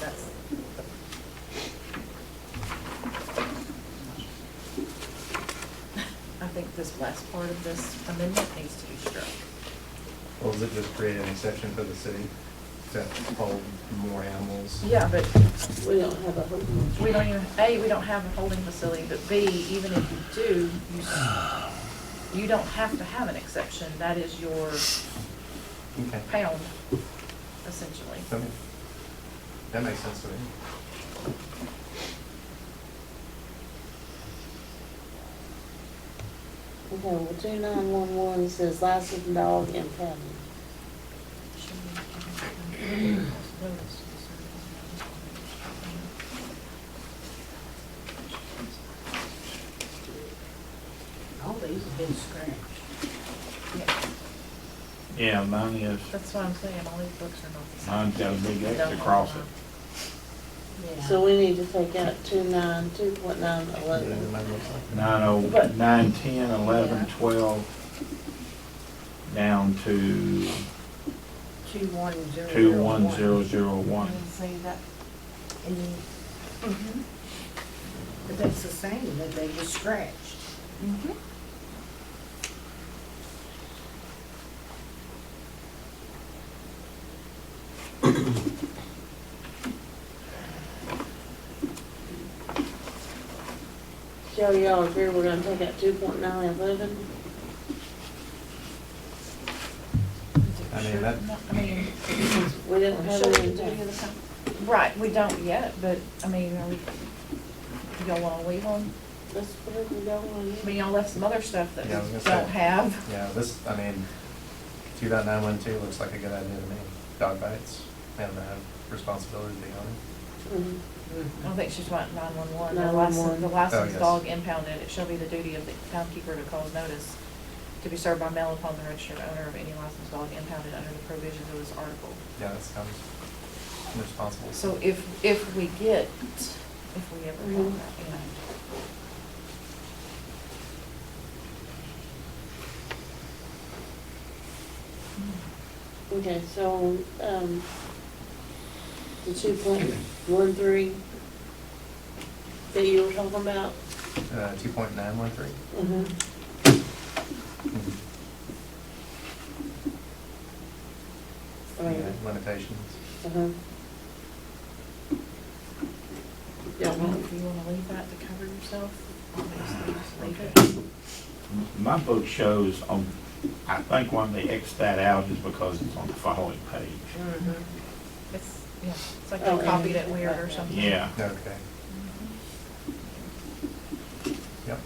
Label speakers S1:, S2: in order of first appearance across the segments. S1: That's, I think this last part of this amendment needs to be struck.
S2: Well, does it just create an exception for the city to hold more animals?
S1: Yeah, but
S3: We don't have a hook.
S1: we don't even, A, we don't have a holding facility, but B, even if you do, you, s- you don't have to have an exception. That is your
S2: Okay.
S1: pound, essentially.
S2: I mean, That makes sense to me.
S3: Okay, well, two nine one one says licensed dog and kennel.
S4: All these have been scratched.
S1: Yeah,
S5: Yeah, mine is,
S1: That's what I'm saying, all these books are not the same.
S5: mine's got a big
S1: They don't
S5: X
S1: hold
S5: across
S1: on.
S5: it.
S3: So we need to take out two nine, two point nine
S2: Yeah,
S3: eleven.
S2: it might look like that.
S5: Nine oh,
S1: But-
S5: nine, ten, eleven,
S1: Yeah.
S5: twelve, down to
S4: Two one zero.
S5: two, one, zero, zero, one.
S4: And see that, and then,
S1: Mhm.
S4: but that's the same, that they just scratched.
S1: Mhm.
S3: Joe, y'all agree we're gonna take out two point nine eleven?
S1: Is it
S2: I mean,
S1: sure?
S2: that-
S1: No, I mean,
S3: We don't have
S1: sure we
S3: any.
S1: can do the same. Right, we don't yet, but, I mean, are we, y'all wanna leave them?
S3: Let's put it in the dog one.
S1: I mean, y'all left some other stuff that we
S2: Yeah, I was gonna
S1: don't
S2: say.
S1: have.
S2: Yeah, this, I mean, two dot nine one two looks like a good idea to me. Dog bites, and the responsibility to the owner.
S3: Mhm.
S1: I
S4: Mm-hmm.
S1: don't think she's wanting nine-one-one, the license,
S3: 911.
S1: the
S2: Oh,
S1: licensed
S2: yes.
S1: dog impounded, it shall be the duty of the townkeeper to cause notice to be served by mail upon the registered owner of any licensed dog impounded under the provisions of this article.
S2: Yeah, that sounds responsible.
S1: So if, if we get, if we ever have
S3: Mhm.
S1: that, you know.
S3: Okay, so, um, the two point one three that you were talking about?
S2: Uh, two point nine one three?
S3: Mhm.
S1: Mm-hmm.
S3: I mean,
S2: Yeah, limitations.
S3: uh-huh. Yeah,
S1: I
S3: well,
S1: mean, If you wanna leave that to cover yourself, obviously, just leave it. Mm-hmm.
S5: My book shows on, I think one they X that out is because it's on the following page.
S4: Mm-hmm.
S1: It's, yeah, it's like
S3: Oh,
S1: they
S3: and-
S1: copied it weird or something.
S5: Yeah,
S2: Okay. Yep.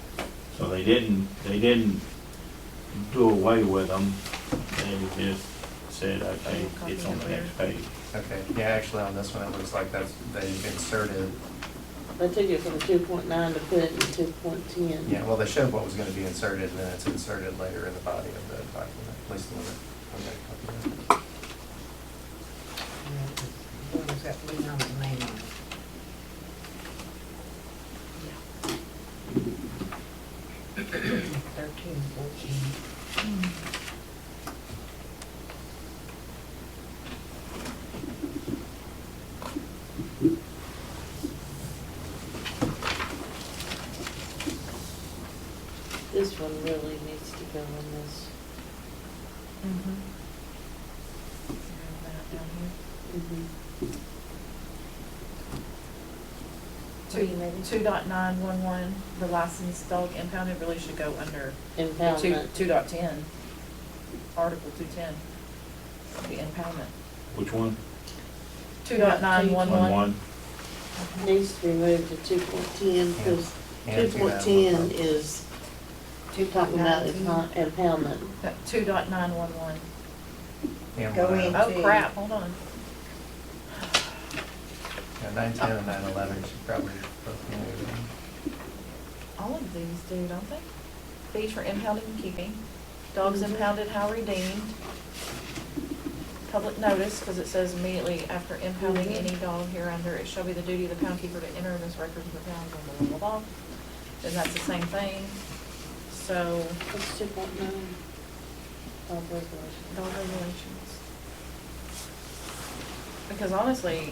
S5: so they didn't, they didn't do away with them. They just said, okay, it's on the next page.
S2: Okay, yeah, actually, on this one, it looks like that's, they inserted,
S3: They took it from two point nine to put it in two point ten.
S2: yeah, well, they showed what was gonna be inserted, and then it's inserted later in the body of the document, at least the one that- one. that copy.
S4: What was that, we know the name on it. Thirteen, fourteen.
S1: Mm-hmm.
S3: This one really needs to go in this.
S1: Mhm. Yeah, that down here.
S3: Mhm.
S1: Two, two dot nine one one, the licensed dog impounded really should go under the two,
S3: Impoundment.
S1: two dot ten, article two ten, the impoundment.
S5: Which one?
S1: Two dot nine one
S5: One,
S1: one.
S5: one?
S3: Needs to be moved to two point ten, because
S2: And
S3: two point ten is, you're talking about is not impoundment.
S1: Two dot nine one one.
S2: And
S4: Go
S2: one
S4: in.
S2: out.
S1: Oh crap, hold on.
S2: Yeah, nine ten and nine eleven should probably both be moved in.
S1: All of these do, don't they? Fees for impounding and keeping, dogs impounded how redeemed. Public notice, because it says immediately after impounding
S3: Mhm.
S1: any dog hereunder, it shall be the duty of the pound keeper to enter in his records of the pound, blah, blah, blah, blah. Then that's the same thing. So,
S3: It's two point nine. Dog regulation.
S1: dog regulations. Because honestly,